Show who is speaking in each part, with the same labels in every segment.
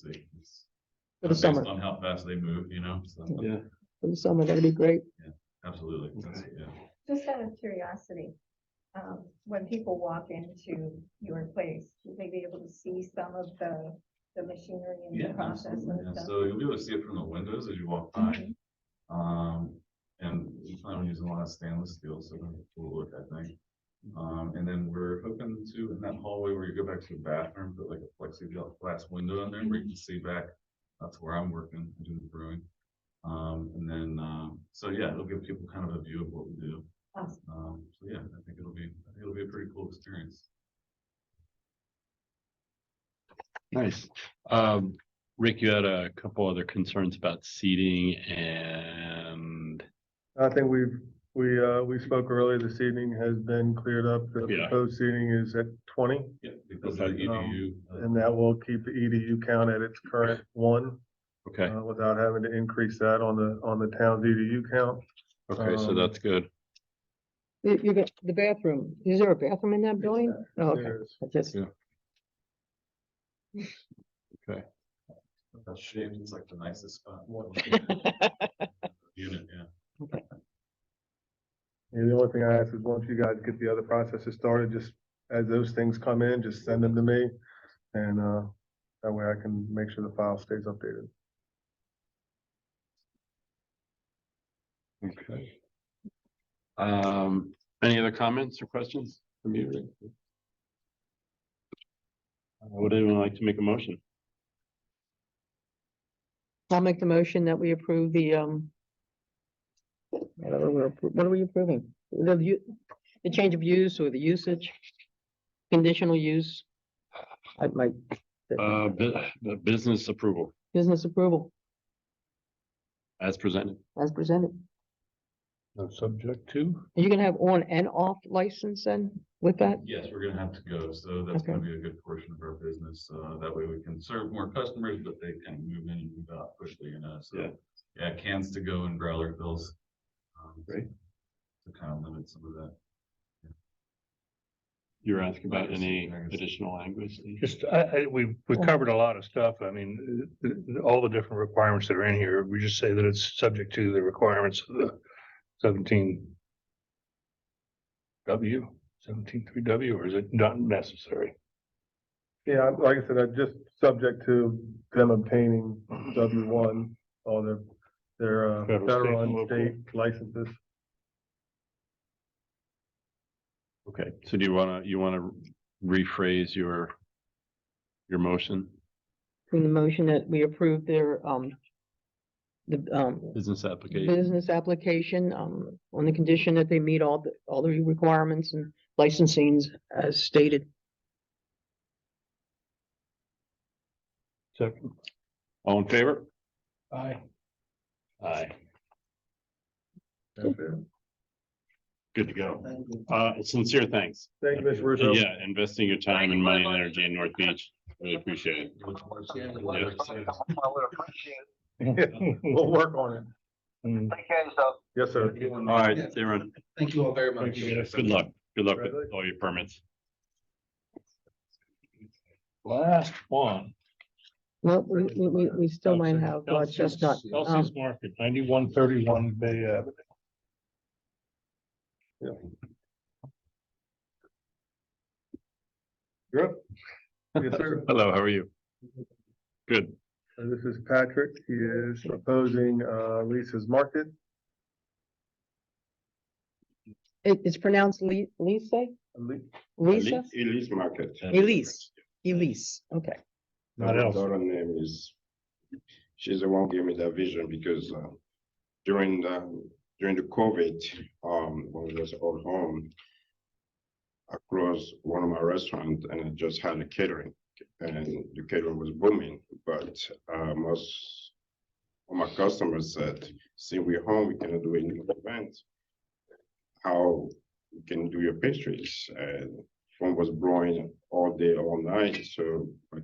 Speaker 1: decisions.
Speaker 2: for the
Speaker 1: Based
Speaker 2: summer,
Speaker 1: On how fast they move, you know, so,
Speaker 2: Yeah.
Speaker 3: Yeah,
Speaker 2: for the summer, that'd be great.
Speaker 1: absolutely, that's, yeah.
Speaker 4: Just out of curiosity, um, when people walk into your place, will they be able to see some of the, the machinery and
Speaker 1: Yeah,
Speaker 4: the process
Speaker 1: absolutely,
Speaker 4: and
Speaker 1: yeah.
Speaker 4: stuff?
Speaker 1: So you'll be able to see it from the windows as you walk by,
Speaker 4: Mhm.
Speaker 1: um, and we plan on using a lot of stainless steel, so we'll look at that. Um, and then we're hoping to, in that hallway where you go back to the bathroom, put like a plexiglass window in there where you can see back. That's where I'm working, doing the brewing. Um, and then, um, so yeah, it'll give people kind of a view of what we do.
Speaker 4: Awesome.
Speaker 1: Um, so yeah, I think it'll be, I think it'll be a pretty cool experience.
Speaker 3: nice. Um, Rick, you had a couple other concerns about seating and
Speaker 5: I think we've, we, uh, we spoke earlier this evening has been cleared up. The
Speaker 3: Yeah.
Speaker 5: proposed seating is at twenty
Speaker 1: Yeah. Because of the
Speaker 3: Okay.
Speaker 1: EDU. uh,
Speaker 5: and that will keep the EDU count at its current one.
Speaker 3: okay,
Speaker 5: uh, Without having to increase that on the, on the town's EDU count.
Speaker 3: okay, so
Speaker 5: Um,
Speaker 3: that's good.
Speaker 2: You, you got the bathroom, is there a bathroom in that building? Oh, Okay,
Speaker 5: There's-
Speaker 2: I just,
Speaker 3: Yeah.
Speaker 1: That's shaped, it's like the nicest spot. Unit, yeah.
Speaker 5: Yeah, the only thing I ask is once you guys get the other processes started, just as those things come in, just send them to me. And, uh, that way I can make sure the file stays updated.
Speaker 3: Okay. Um, any other comments or questions from you? Rick? Uh, Would anyone like to make a motion?
Speaker 2: I'll make the motion that we approve the, um. Whatever, we're appro- what are we approving? The, u- the change of use or the usage? Conditional use? I might,
Speaker 3: Uh, bu- the business approval
Speaker 2: business approval
Speaker 3: as presented.
Speaker 2: as presented.
Speaker 3: Subject to?
Speaker 2: Are you gonna have on and off license then with that?
Speaker 1: Yes, we're gonna have to go, so that's
Speaker 2: Okay.
Speaker 1: gonna be a good portion of our business, uh, that way we can serve more customers, but they kind of move in and move out quickly, you know,
Speaker 3: Yeah.
Speaker 1: so. Yeah, cans to go and growler bills. um,
Speaker 3: Great.
Speaker 1: To kind of limit some of that.
Speaker 3: You're asking about
Speaker 1: Yes,
Speaker 3: any
Speaker 1: yes.
Speaker 3: additional language? Steve?
Speaker 6: Just, I, I, we, we
Speaker 2: Yeah.
Speaker 6: covered a lot of stuff. I mean, uh, uh, all the different requirements that are in here, we just say that it's subject to the requirements of the seventeen W, seventeen three W, or is it not necessary?
Speaker 5: Yeah, I- like I said, I'm just subject to them obtaining W one, all their, their uh,
Speaker 6: Federal, state,
Speaker 5: federal
Speaker 6: local.
Speaker 5: and state licenses.
Speaker 3: Okay, so do you wanna, you wanna rephrase your, your motion,
Speaker 2: From the motion that we approve their, um. The, um,
Speaker 3: business application?
Speaker 2: business application, um, on the condition that they meet all the, all the requirements and licensings as stated.
Speaker 6: Second.
Speaker 7: Mm-hmm.
Speaker 3: All in favor?
Speaker 6: Aye.
Speaker 3: Aye.
Speaker 5: That's it.
Speaker 3: Good to go. Uh, sincere thanks.
Speaker 5: Thank you, Mr. Russo.
Speaker 3: And Yeah, investing your time and money and energy in North Beach. Really appreciate it.
Speaker 1: Look forward to seeing the weather soon.
Speaker 5: We'll work on it.
Speaker 6: Mm,
Speaker 5: Yes, sir.
Speaker 3: All right, everyone,
Speaker 7: Thank you all very
Speaker 6: Thank
Speaker 7: much.
Speaker 6: you, guys.
Speaker 3: good luck. Good luck with all your permits.
Speaker 6: Last one.
Speaker 2: Well, we, we- we, we still might
Speaker 6: Chelsea-
Speaker 2: have uh,
Speaker 6: Chelsea's-
Speaker 2: chestnut.
Speaker 6: Chelsea's Market, ninety-one thirty-one Bay Avenue.
Speaker 5: Yes, sir.
Speaker 3: Hello, how are you? Good.
Speaker 5: Uh, This is Patrick. He is proposing, uh, Lisa's Market.
Speaker 2: It, it's pronounced Li- Lisa,
Speaker 5: Ali-
Speaker 2: Lisa,
Speaker 3: Elise Market.
Speaker 2: Elise. Elise, okay.
Speaker 6: Not
Speaker 8: My
Speaker 6: else.
Speaker 8: daughter name is, she's the one gave me that vision because uh, during the, during the COVID, um, when I was at home. Across one of my restaurants and I just had a catering and the catering was booming, but uh, most. of My customers said, see, we're home, we cannot do any event. How you can do your pastries and phone was blowing all day, all night, so I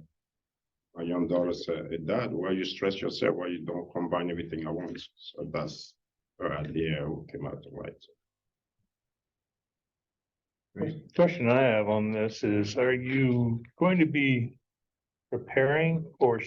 Speaker 8: my young daughter said, "Hey, Dad, why you stress yourself? Why you don't combine everything at once? So that's her idea who came out right.
Speaker 6: Question I have on this is, are you going to be preparing or